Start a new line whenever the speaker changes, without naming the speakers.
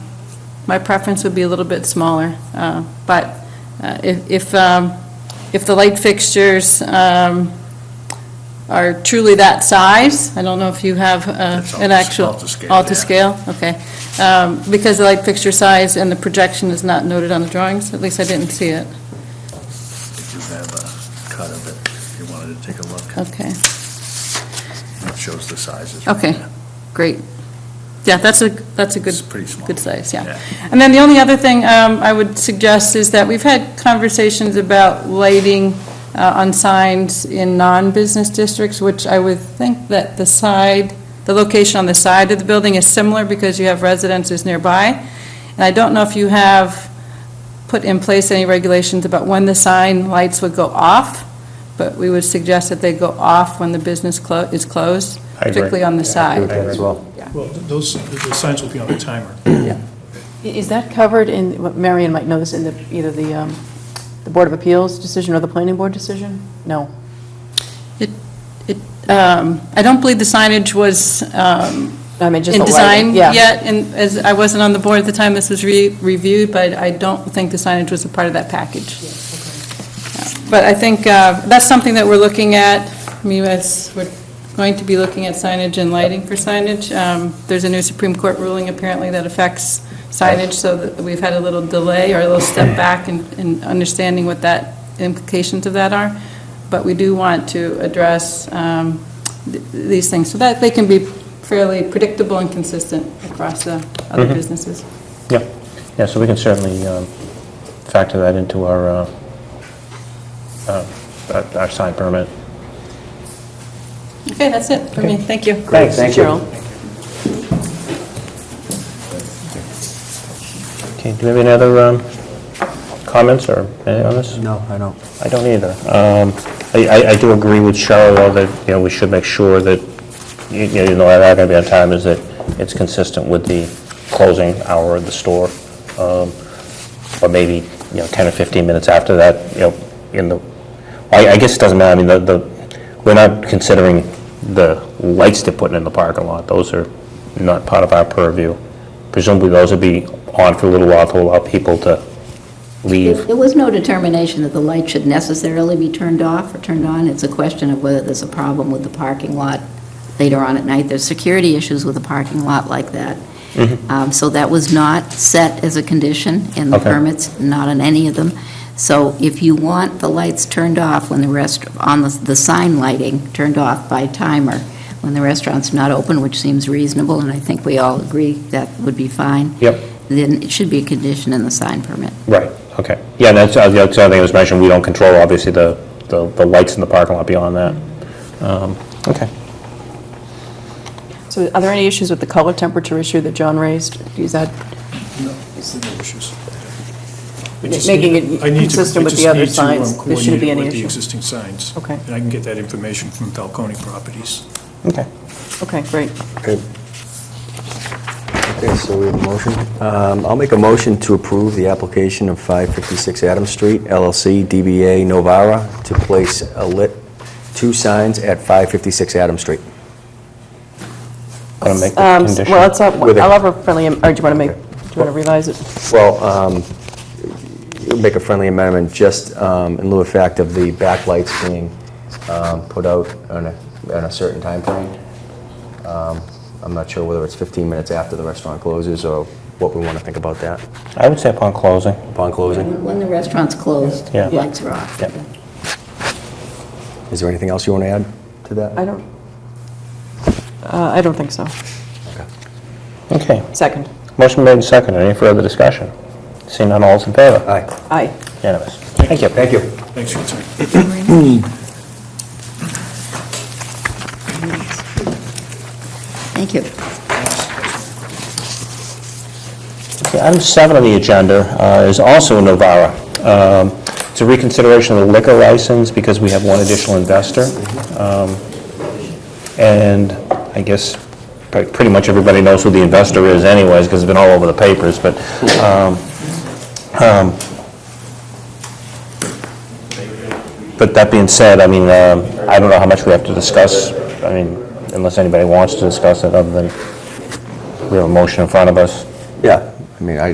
my preference would be a little bit smaller, uh, but uh, if, if, um, if the light fixtures um, are truly that size, I don't know if you have uh,
It's all
an
to-
actual...
all to scale,
all to
yeah.
scale? okay. Um, Because the light fixture size and the projection is not noted on the drawings, at least I didn't see it,
Did you have a cut of it, if you wanted to take a look?
okay.
It shows the sizes. right
Okay,
there.
great. Yeah, that's a, that's a good.
It's pretty small.
Good size,
Yeah.
yeah. And then the only other thing um, I would suggest is that we've had conversations about lighting uh, on signs in non-business districts, which I would think that the side, the location on the side of the building is similar because you have residences nearby. And I don't know if you have put in place any regulations about when the sign lights would go off, but we would suggest that they go off when the business clo- is closed,
I agree.
particularly on the
I
side.
agree with that as well.
Well, th- those, the signs will be on the timer.
I- Is that covered in, what Marion might know this, in the, either the, um, the Board of Appeals decision or the Planning Board decision? No.
Um, I don't believe the signage was um,
I mean, just
in
the
design
lighting, yeah.
yet, and as, I wasn't on the board at the time this was re- reviewed, but I don't think the signage was a part of that package. Yeah, But I think uh, that's something that we're looking at, I mean, as, we're going to be looking at signage and lighting for signage. Um, There's a new Supreme Court ruling apparently that affects signage, so that we've had a little delay or a little step back in, in understanding what that, implications of that are, but we do want to address um, th- these things, so that they can be fairly predictable and consistent across the other businesses.
Yeah, yeah, so we can certainly um, factor that into our, uh, uh, our- our sign permit.
Okay, that's it for me, thank you.
Thanks, thank you.
Cheryl?
Okay, do we have any other um, comments or anything on this?
No, I don't.
I don't either. Um, I- I I do agree with Cheryl, though, that, you know, we should make sure that, you you know, that are going to be on time, is that it's consistent with the closing hour of the store, um, or maybe, you know, 10 or 15 minutes after that, you know, in the, I I guess it doesn't matter, I mean, the- the, we're not considering the lights they're putting in the parking lot, those are not part of our purview. Presumably, those will be on for a little while to allow people to leave.
There was no determination that the light should necessarily be turned off or turned on. It's a question of whether there's a problem with the parking lot later on at night. There's security issues with a parking lot like that. Um, So that was not set as a condition in the
Mm-hmm. Okay.
permits, not on any of them. So if you want the lights turned off when the rest, on the, the sign lighting turned off by timer, when the restaurant's not open, which seems reasonable, and I think we all agree that would be fine.
Yep.
Then it should be a condition in the sign permit.
Right, okay. Yeah, that's, uh, the other thing that was mentioned, we don't control, obviously, the, the the lights in the parking lot beyond that. Um, Okay.
So are there any issues with the color temperature issue that John raised? Is that
No, no issues. We
Ma-
just
making
need-
it
I need to-
consistent
we
with the
just
other
need to, um,
signs. There shouldn't be
coordinate it
any
with the
issue.
existing signs.
Okay.
And I can get that information from Falcone Properties.
Okay.
Okay, great.
Okay, Okay, so we have a motion. Um, I'll make a motion to approve the application of 556 Adams Street LLC DBA Novara to place a lit two signs at 556 Adams Street.
Want to make the
Um, s-
condition?
Well, it's, up-
With a-
I'll have a friendly, am- or do you want to make, do you want to revise it?
Well, um, you'll make a friendly amendment, just um, in lieu of fact of the backlights being um, put out on a, on a certain timeframe. Um, I'm not sure whether it's 15 minutes after the restaurant closes or what we want to think about that
I would say upon closing.
upon closing.
When the restaurant's closed,
Yeah.
lights are off.
Yeah.
Is there anything else you want to add to that?
I don't, uh, I don't think so.
Okay.
Second.
Motion made and seconded. Any further discussion? Seeing none, all's in favor?
Aye.
Aye.
Unanimous. Thank you.
Thank you.
Thanks for your time.
Thank you.
Okay, Item seven on the agenda uh, is also a Novara. Um, It's a reconsideration of the liquor license because we have one additional investor. Um, And I guess pre- pretty much everybody knows who the investor is anyways because it's been all over the papers, but um, um, But that being said, I mean, um, I don't know how much we have to discuss, I mean, unless anybody wants to discuss it other than we have a motion in front of us.
Yeah, I mean, I,